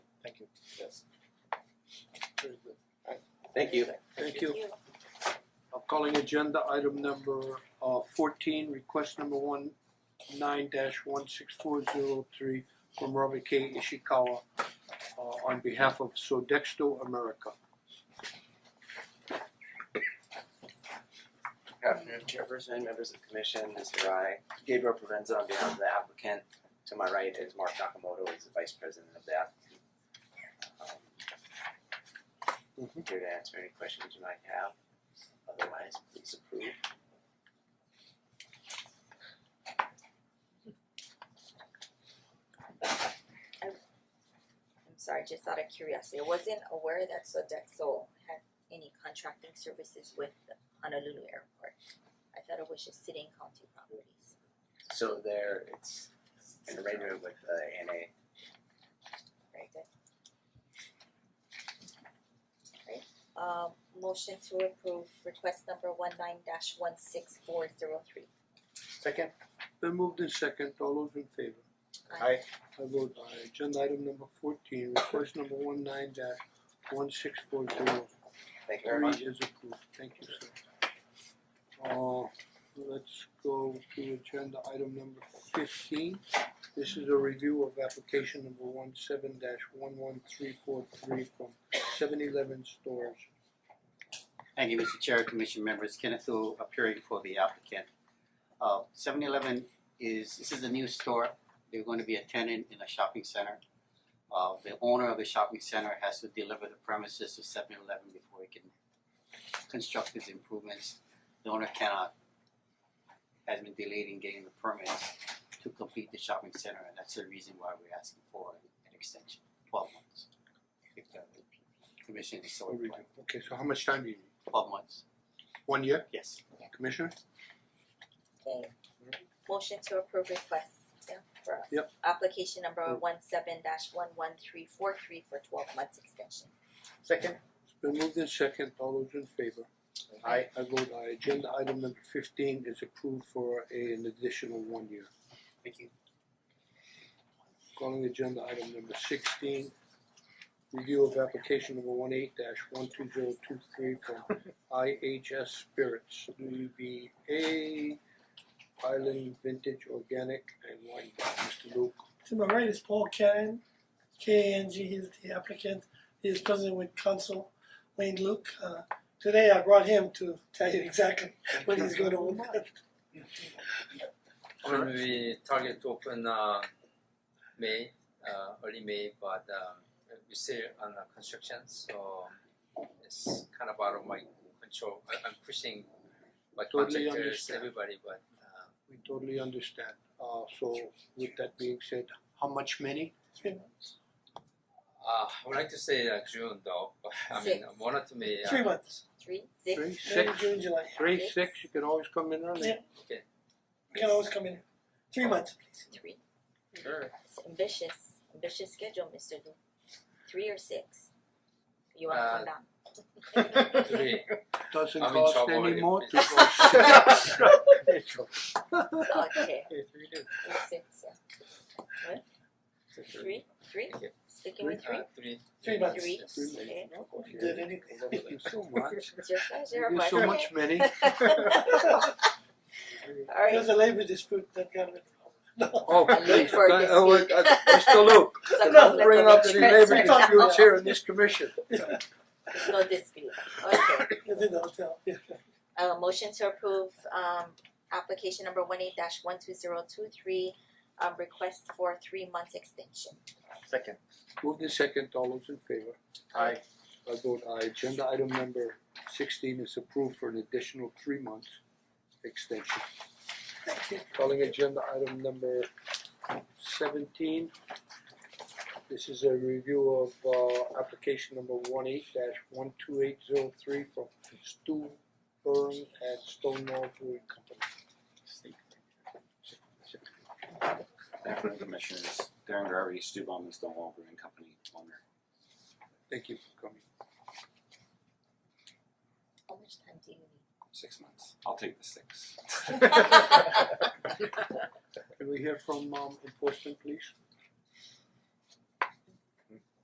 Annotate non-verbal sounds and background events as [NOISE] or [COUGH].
Yes. Very good. Thank you. Thank you. I'm Uh, calling agenda item number uh fourteen, request number one nine dash one six four zero three from Robert K Ishikawa uh on behalf of Sodexo America. Good afternoon, Chairperson, members of the commission, Mr. Rai. Gabriel Provenza on behalf of the applicant. To my right is Mark Nakamoto, he's the vice president of the applicant. Um, Here to answer any questions you might have. Otherwise, please approve. I'm sorry, just out of curiosity, I wasn't aware that Sodexo had any contracting services with Honolulu Airport. I thought it was just sitting county properties. So there, it's an arrangement with uh, the ANA. Very good. Right, um motion to approve request number one nine dash one six four zero three. Second, Then moved in second, all those in favor? Aye. I vote aye, agenda item number fourteen, request number one nine dash one six four zero Thank you very three much. is approved, thank you sir. Uh let's go to agenda item number fifteen. This is a review of application number one seven dash one one three four three from seven eleven stores. Thank you, Mr. Chair, Commission members, Kenneth Lu appearing for the applicant. Uh seven eleven is, this is a new store, they're going to be a tenant in a shopping center. Uh the owner of the shopping center has to deliver the premises to seven eleven before he can construct his improvements. The owner cannot, has been delayed in getting the permits to complete the shopping center, and that's the reason why we're asking for an extension, twelve months. If the commission is so A review. inclined, Okay, so how much time do you need? twelve months, One year, yes. Commissioner? Okay, motion to approve request, yeah, for Yep. application number Mm. one seven dash one one three four three for twelve months extension. second, It's been moved in second, all those in favor? aye, I vote aye, agenda item number fifteen is approved for a- an additional one year. Thank you. Calling agenda item number sixteen, review of application number one eight dash one two zero two three from [LAUGHS] IHS Spirits, DBA Island Vintage Organic and Wine Bar, Mr. Luke. To my right is Paul Cannon, K A N G, he's the applicant, he is president with council Wayne Luke. Uh, Today I brought him to tell you exactly what he's gonna open. Well, we target to open uh May, uh early May, but um we still on the construction, so it's kind of out of my control. I I'm pushing my Totally contractors, understand. everybody, but uh We totally understand, uh so with that being said, how much many? uh I would like to say uh June though, but I mean Six. one or two May [LAUGHS] uh Three months, Three, six, Three, May, six, June, July, three, six, you can always come in early. Yeah. you can always come in, [LAUGHS] three months, three. Sure. It's ambitious, ambitious schedule, Mister Lu. Three or six? You Uh, wanna come down? Three. uh, Doesn't I'm in cost trouble any if more [LAUGHS] to it's- go. [LAUGHS] Okay, Three days. three, six, yeah. What? Three, three? Okay. Sticking with Uh three? three three. months. Three, Yes. okay. You Did anything. Thank you so much. It's your pleasure, Thank you but so much, Manny. [LAUGHS] [LAUGHS] It Alright, was a labor dispute that got me. No. [LAUGHS] Oh, I please, [LAUGHS] live for thank- this oh, week. uh, Mr. Luke, [LAUGHS] so No, no, don't let bring the up any waitress- labor No. disputes here in this commission. There's [LAUGHS] no dispute, okay. It's in the hotel, yeah. Uh motion to approve um application number one eight dash one two zero two three um request for three months extension. second, Moved in second, all those in favor? aye, I vote aye, agenda item number sixteen is approved for an additional three months extension. Calling agenda item number seventeen. This is a review of uh application number one eight dash one two eight zero three from Stu Burn and Stonewall Brewing Company. Good afternoon, Commissioners. Darren Garvey, Stu Bowman, Stonewall Brewing Company owner. Thank you for coming. How much time do you need? Six months. I'll take the six. [LAUGHS] Can we hear from um enforcement, please?